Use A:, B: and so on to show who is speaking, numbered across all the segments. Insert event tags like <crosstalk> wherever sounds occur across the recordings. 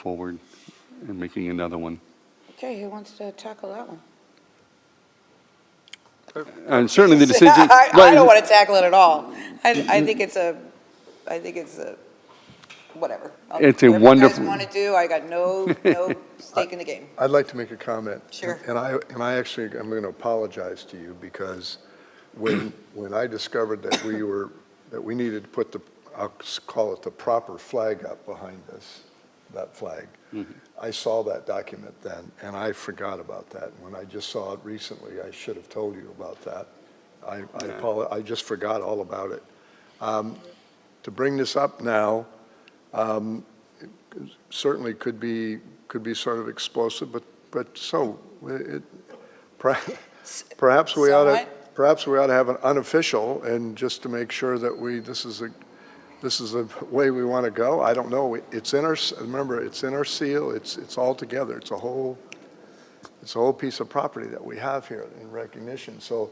A: forward and making another one.
B: Okay, who wants to tackle that one?
A: And certainly
B: <laughs>
A: the decision.
B: I, I
A: right,
B: don't want to tackle it at all. I, I think it's a, I think it's a, whatever. I'll-
A: It's a wonderful-
B: Whatever you guys want to do, I got no,
A: <laughs>
B: no stake in the game.
C: I'd like to make a comment.
B: Sure.
C: And I, and I actually, I'm going to apologize to you because when, when I discovered that we were, that we needed to put the, I'll s- call it the proper flag up behind us, that flag, I saw that document then and I forgot about that. When I just saw it recently, I should have told you about that. I, I apologize, I just forgot all about it. Um, To bring this up now, um, certainly could be, could be sort of explosive, but, but so, it,
B: <laughs>
C: perha- perhaps we ought to,
B: Somewhat.
C: perhaps we ought to have an unofficial, and just to make sure that we, this is a, this is the way we want to go, I don't know, it's in our, s- remember, it's in our seal, it's, it's all together, it's a whole, it's a whole piece of property that we have here in recognition, so,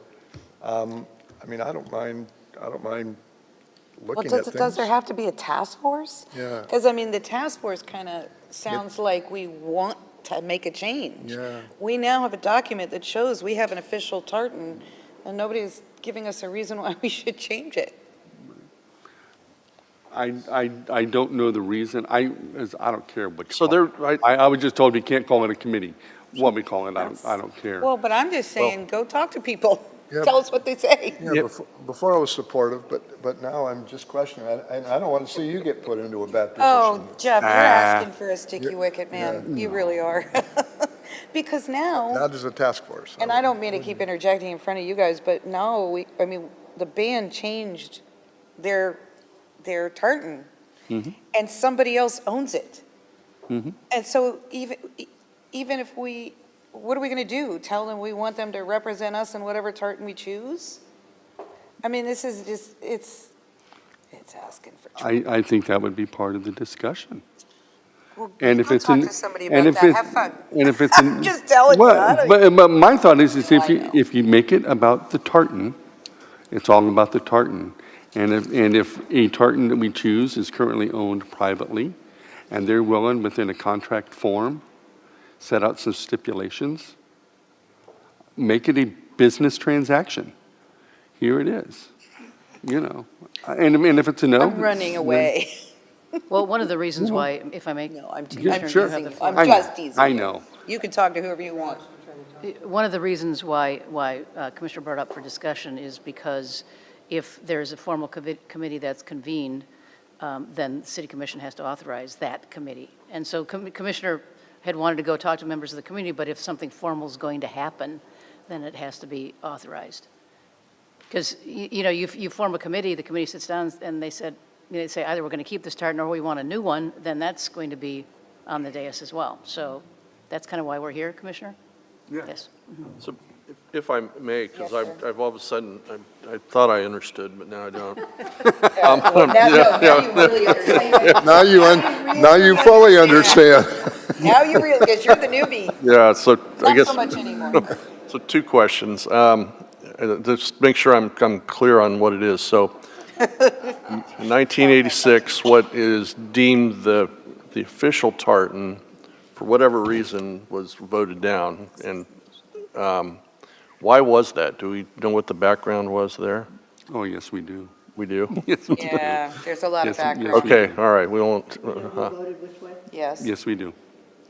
C: um, I mean, I don't mind, I don't mind
B: Well,
C: looking at
B: does,
C: things.
B: does there have to be a task force?
C: Yeah.
B: Because, I mean, the task force kind of sounds like we want to make a change.
C: Yeah.
B: We now have a document that shows we have an official tartan, and nobody's giving us a reason why <laughs> we should change it.
A: I, I, I don't know the reason. I, is- I don't care what. you
D: So
A: call
D: they're-
A: it. I, I was just told we can't call it a committee. What we call it, I don't, I don't care.
B: Well, but I'm just saying, go talk to people. <laughs>
C: Yeah.
B: Tell us what they say.
C: Yeah, before, before I was supportive, but, but now I'm just questioning, and- and I don't want to see you get put into a bad
B: Oh,
C: position.
B: Jeff, you're
A: Ah.
B: asking for a sticky
C: Yeah,
B: wicket, man. You really are. <laughs> Because
C: Now
B: now,
C: there's a task force.
B: and I don't mean to keep interjecting in front of you guys, but now we, I mean, the band changed their, their tartan. And somebody else owns it. And so even, e- even if we, what are we going to do? Tell them we want them to represent us in whatever tartan we choose? I mean, this is just, it's, it's asking for trouble.
A: I, I think that would be part of the discussion.
B: Well,
A: And if
B: go
A: it's
B: talk
A: in-
B: to somebody
A: and
B: about
A: if
B: that.
A: it's-
B: Have fun.
A: And if
B: <laughs>
A: it's. in-
B: Just telling you,
A: Well,
B: I
A: But,
B: don't-
A: but my thought is, is
B: No,
A: if
B: I
A: you,
B: know.
A: if you make it about the tartan, it's all about the tartan. And if, and if a tartan that we choose is currently owned privately, and they're willing, within a contract form, set out some stipulations, make it a business transaction. Here it is, you know. And, and if it's a no.
B: I'm running
A: then-
B: away. <laughs>
E: Well, one of the reasons why, if I may.
B: No, I'm te-
A: Yeah,
B: I'm
A: sure.
B: teasing you.
A: I
B: I'm
A: know,
B: just teasing
A: I
B: you.
A: know.
B: You can talk to whoever
A: <laughs>
B: you want.
E: One of the reasons why, why uh, Commissioner brought up for discussion is because if there's a formal covi- committee that's convened, um, then the city commission has to authorize that committee. And so Com- Commissioner had wanted to go talk to members of the community, but if something formal is going to happen, then it has to be authorized. Because, you know, you, f- you form a committee, the committee sits down and they said, you know, they say either we're going to keep this tartan or we want a new one, then that's going to be on the dais as well. So that's kind of why we're here, Commissioner? Yes.
D: So if- if I may, because
B: Yes,
D: I've, I've all of a sudden, I- I thought I understood, but now
B: <laughs>
D: I don't. Um,
B: Now, no, now you
A: <laughs>
B: really understand.
C: Now you, un- now you fully understand.
B: Now you really, because you're the newbie.
A: <laughs>
D: Yeah, so I
B: Not
D: guess.
B: so much anymore.
D: So two questions. Um, uh, Just make sure I'm, I'm clear on what it is. So
B: <laughs>
D: in 1986, what is deemed the, the official tartan, for whatever reason, was voted down. And um, why was that? Do we know what the background was there?
A: Oh, yes, we do. <laughs>
D: We do?
A: Yes, we do.
B: Yeah, there's a lot
A: Yes,
B: of
A: yes.
B: background.
D: Okay, all right, we won't, uh,
B: Yes.
A: Yes, we do.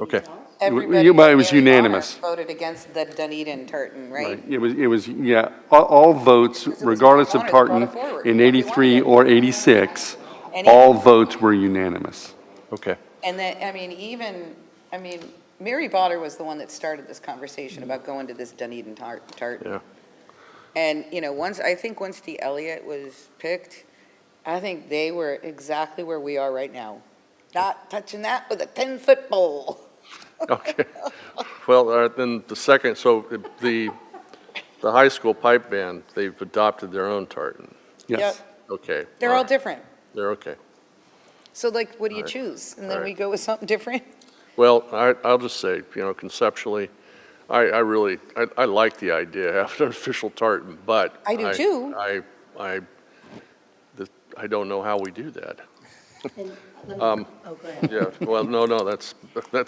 D: okay.
B: Everybody
A: you might- it was
B: in the honor
A: unanimous.
B: Voted against the Dunedin tartan, right?
A: It was, it was, yeah, all, all votes,
B: was
A: regardless of
B: Mark Warner
A: Tartan,
B: that brought it forward.
A: in
B: He wanted
A: 83
B: it.
A: or 86,
B: And he-
A: all votes were unanimous.
D: Okay.
B: And then, I mean, even, I mean, Mary Botter was the one that started this conversation about going to this Dunedin tar- tartan.
D: Yeah.
B: And, you know, once, I think once the Elliott was picked, I think they were exactly where we are right now. Not touching that with a 10-foot pole.
D: Okay. Well, all right, then the second, so the, the high school pipe band, they've adopted their own tartan.
A: Yes.
B: Yep,
D: Okay.
B: They're all
D: right,
B: different.
D: They're okay.
B: So like, what do you
D: Right,
B: choose? And then we
D: right.
B: go with something different?
D: Well, I, I'll just say, you know, conceptually, I, I really, I, I like the idea of having an official tartan, but.
B: I do too.
D: I, I, the- I don't know how we do that.
F: And
D: Um, Yeah, well, no, no, that's, that's